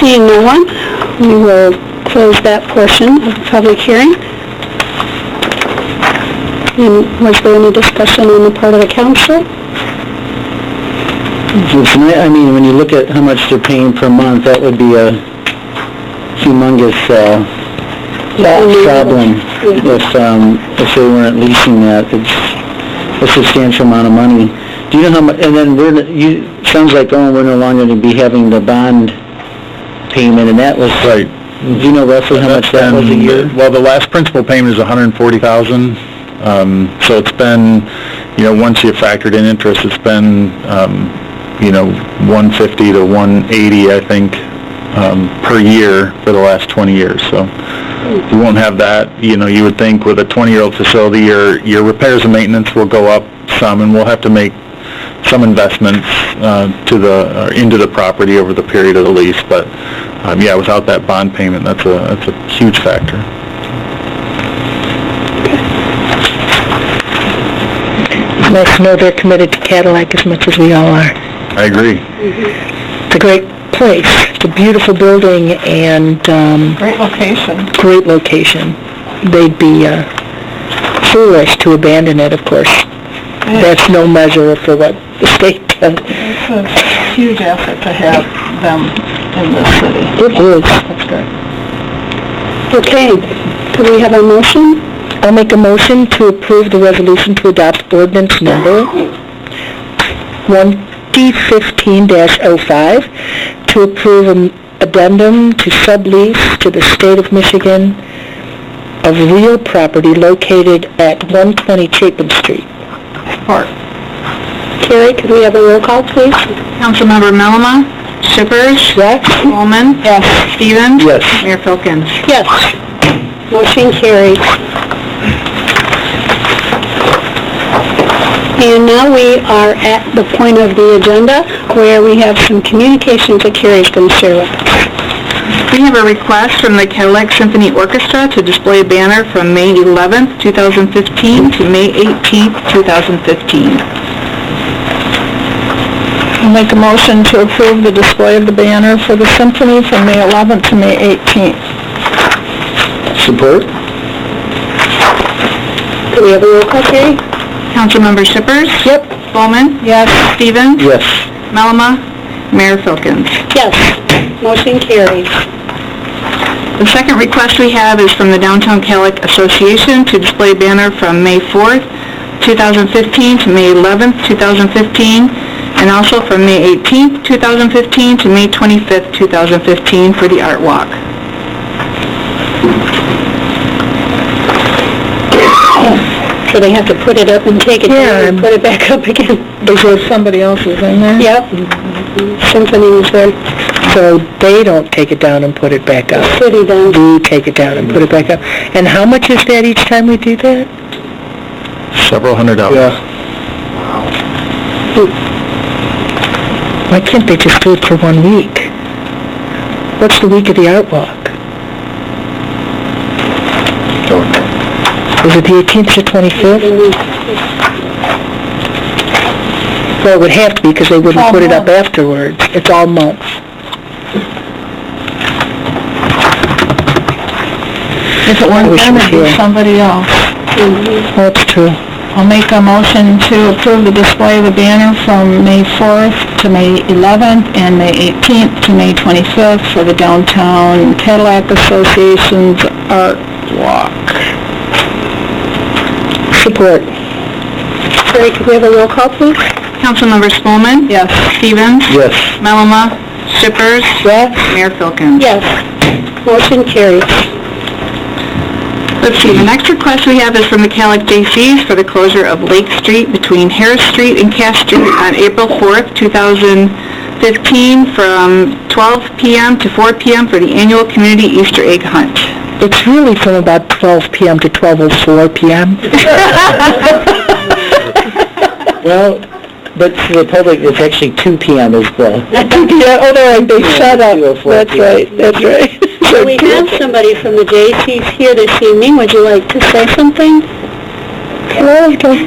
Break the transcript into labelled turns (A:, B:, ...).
A: Seeing no one, we will close that portion of the public hearing. And was there any discussion on the part of the council?
B: It's ni- I mean, when you look at how much they're paying per month, that would be a humongous, uh, problem if, um, if they weren't leasing that. It's a substantial amount of money. Do you know how mu, and then we're, n- you, sounds like, oh, we're no longer gonna be having the bond payment, and that was,
C: Right.
B: do you know roughly how much that was a
C: And,
B: year?
C: Well, the last principal payment is a hundred and forty thousand, um, so it's been, you know, once you factored in interest, it's been, um, you know, one fifty to one eighty, I think, um, per year for the last twenty years, so. You won't have that, you know, you would think with a twenty-year-old facility, your, your repairs and maintenance will go up some, and we'll have to make some investments uh, to the, or into the property over the period of the lease, but, um, yeah, without that bond payment, that's a, that's a huge factor.
D: Let's know they're committed to Cadillac as much as we all are.
C: I agree.
D: It's a great place, it's a beautiful building and, um... Great location. Great location. They'd be, uh, foolish to abandon it, of course. That's no measure for what the state does.
E: huge effort to have them in this city.
D: It is.
A: Okay, could we have a motion?
D: I'll make a motion to approve the resolution to adopt ordinance number 2015-05 to approve an addendum to sublease to the State of Michigan of real property located at 120 Chapin Street.
A: Carrie, could we have a roll call, please?
E: Councilmember Melama, Shippers,
D: Yes?
E: Coleman. Yes. Stevens.
B: Yes.
E: Mayor Filkins.
A: Yes. Motion carries. And now we are at the point of the agenda where we have some communications that Carrie's going to share with us.
E: We have a request from the Cadillac Symphony Orchestra to display a banner from May 11th, 2015 to May 18th, 2015.
D: I'll make a motion to approve the display of the banner for the symphony from May 11th to May 18th.
B: Support?
A: Could we have a roll call, Carrie?
E: Councilmember Shippers. Yep. Coleman. Yes. Stevens.
B: Yes.
E: Melama, Mayor Filkins.
A: Yes. Motion carries.
E: The second request we have is from the Downtown Calic Association to display a banner from May 4th, 2015 to May 11th, 2015, and also from May 18th, 2015 to May 25th, 2015 for the Art Walk.
A: So they have to put it up and take it down and put it back up again.
D: Is there somebody else's in there?
A: Yep. Symphony is there.
D: So they don't take it down and put it back up?
A: City down.
D: we take it down and put it back up. And how much is that each time we do that?
C: Several hundred dollars.
B: Yeah.
D: Why can't they just do it for one week? What's the week of the art walk? Is it the 18th or 25th? Well, it would have to be because they wouldn't put it up afterwards. It's all month. If it weren't them, it'd be somebody else. That's true. I'll make a motion to approve the display of the banner from May 4th to May 11th and May 18th to May 25th for the Downtown Cadillac Association's Art Walk. Support.
A: Carrie, could we have a roll call, please?
E: Councilmember Spelman.
D: Yes.
E: Stevens.
B: Yes.
E: Melama. Shippers.
D: Yes?
E: Mayor Filkins.
A: Yes. Motion carries.
E: Let's see, the next request we have is from the Calic J.C.'s for the closure of Lake Street between Harris Street and Cass Street on April 4th, 2015, from 12 p.m. to 4 p.m. for the annual community Easter egg hunt.
D: It's really from about 12 PM to 12:04 PM.
B: Well, but to the public, it's actually two PM is the,
D: Yeah, oh, no, they shut up.
B: 2:04
D: That's
B: PM.
D: right, that's right.
A: We have somebody from the J.C.'s here this evening. Would you like to say something?
D: Well,